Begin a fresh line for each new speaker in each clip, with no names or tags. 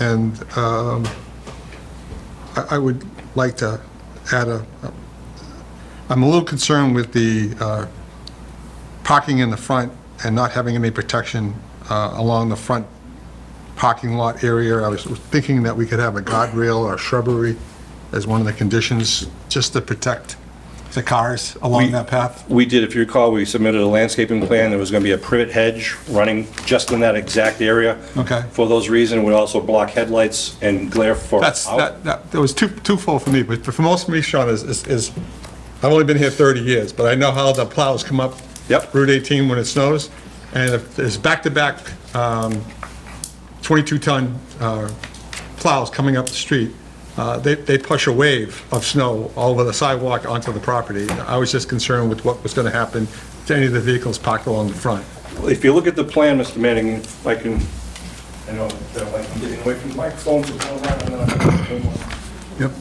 And um, I I would like to add a, I'm a little concerned with the uh, parking in the front and not having any protection uh, along the front parking lot area. I was thinking that we could have a guardrail or shrubbery as one of the conditions, just to protect the cars along that path.
We did, if you recall, we submitted a landscaping plan, there was going to be a privet hedge running just in that exact area.
Okay.
For those reasons, we also block headlights and glare for.
That's,
out.
that, that that was too, twofold for me, but for most of me, Sean, is, is- is, I've only been here 30 years, but I know how the plows come up.
Yep.
Route 18 when it snows, and if there's back-to-back um, 22-ton uh, plows coming up the street, uh, they, they push a wave of snow all over the sidewalk onto the property. I was just concerned with what was going to happen to any of the vehicles parked along the front.
If you look at the plan, Mr. Manning, if I can, I know that like, I'm getting away from the microphone, so don't have another.
Yep.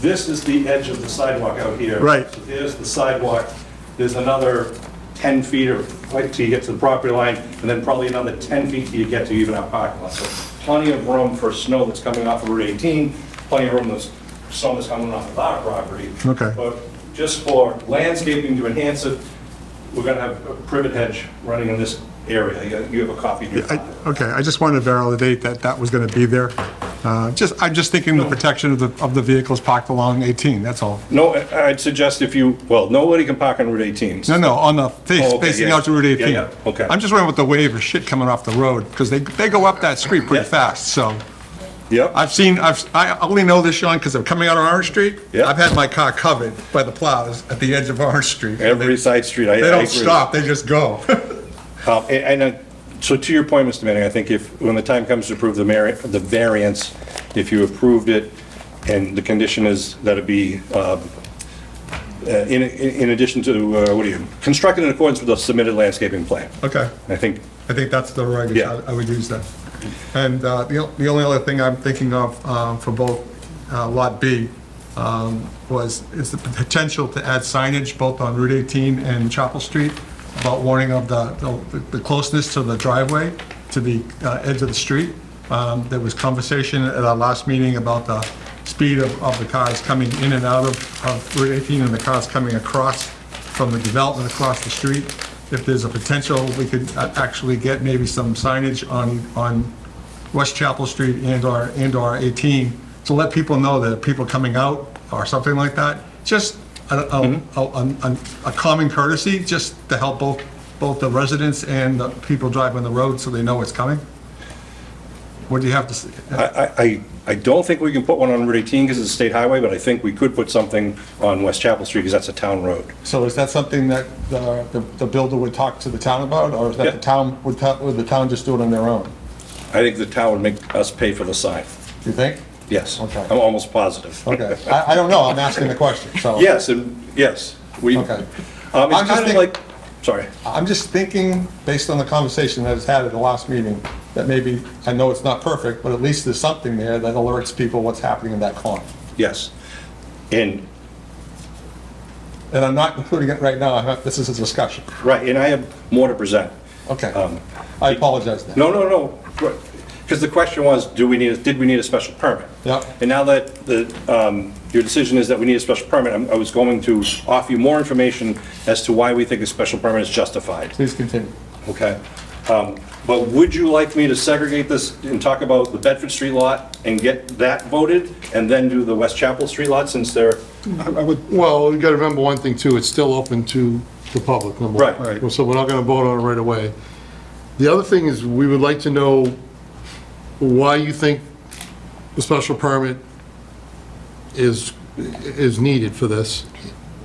This is the edge of the sidewalk out here.
Right.
So There's the sidewalk, there's another 10 feet or, like, till you get to the property line, and then probably another 10 feet till you get to even our parking lot. So plenty of room for snow that's coming off of Route 18, plenty of room that's, snow that's coming off of our property.
Okay.
But just for landscaping to enhance it, we're gonna have a privet hedge running in this area. You- You have a copy in your
I-
file.
Okay, I just wanted to validate that that was going to be there. Uh, Just, I'm just thinking the protection of the, of the vehicles parked along 18, that's all.
No, I- I'd suggest if you, well, nobody can park on Route 18.
No, no, on the
Oh,
face,
okay,
facing
yeah.
out to Route 18.
Yeah, yeah, okay.
I'm just wondering what the wave of shit coming off the road, because they, they go up that street pretty
Yeah.
fast, so.
Yep.
I've seen, I've, I only know this, Sean, because I'm coming out of Orange Street.
Yeah.
I've had my car covered by the plows at the edge of Orange Street.
Every side street, I I
They
agree.
don't stop, they just go.
Um, a- And, uh, so to your point, Mr. Manning, I think if, when the time comes to approve the merit, the variance, if you approved it, and the condition is that it be, um, uh, in, in in addition to, uh, what do you, constructed in accordance with the submitted landscaping plan.
Okay.
I think,
I think that's the language,
Yeah.
I I would use that. And uh, the o- the only other thing I'm thinking of um, for both uh, Lot B um, was, is the potential to add signage both on Route 18 and Chapel Street about warning of the, the- the closeness to the driveway, to the uh, edge of the street. Um, There was conversation at our last meeting about the speed of, of the cars coming in and out of, of Route 18 and the cars coming across from the development across the street. If there's a potential, we could a- actually get maybe some signage on, on West Chapel Street and or, and or 18 to let people know that people coming out or something like that. Just a, a- a, a- a common courtesy, just to help both, both the residents and the people driving the road so they know what's coming. What do you have to uh, say?
I, I- I, I don't think we can put one on Route 18 because it's a state highway, but I think we could put something on West Chapel Street because that's a town road.
So is that something that the, the- the builder would talk to the town about? Or is that the
Yeah.
town, would, ta- would the town just do it on their own?
I think the town would make us pay for the sign.
Do you think?
Yes.
Okay.
I'm almost positive.
Okay, I, I don't know, I'm asking the question, so.
Yes, and, yes. We, um,
Okay. I'm
it's
just
kind of
think-
like, sorry.
I'm just thinking, based on the conversation that was had at the last meeting, that maybe, I know it's not perfect, but at least there's something there that alerts people what's happening in that corner.
Yes. And,
And I'm not including it right now, I have, this is a discussion.
right, and I have more to present.
Okay,
Um,
I apologize then.
No, no, no, because the question was, do we need, did we need a special permit?
Yep.
And now that the, um, your decision is that we need a special permit, I'm- I was going to offer you more information as to why we think a special permit is justified.
Please continue.
Okay. Um, But would you like me to segregate this and talk about the Bedford Street lot and get that voted, and then do the West Chapel Street lot since they're,
Well, you gotta remember one thing too, it's still open to the public, number one.
Right.
Well, So we're not gonna vote on it right away. The other thing is, we would like to know why you think the special permit is, is needed for this,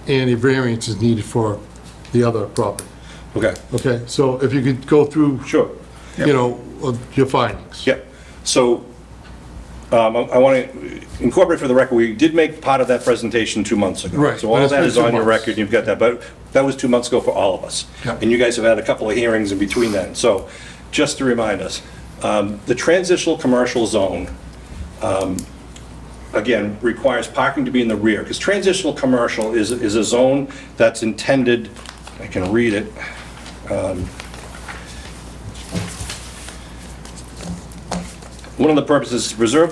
and a variance is needed for the other property.
okay,
Okay, so if you could go through,
sure.
you know, of your findings.
Yep. So um, I I want to incorporate for the record, we did make part of that presentation two months ago.
Right,
So all
but
of
it's
that
been
is
two
on your
months.
record, you've got that, but that was two months ago for all of us.
Yep.
And you guys have had a couple of hearings in between then. So just to remind us, um, the transitional commercial zone, um, again, requires parking to be in the rear, because transitional commercial is is a zone that's intended, I can read it, um, one of the purposes is to preserve the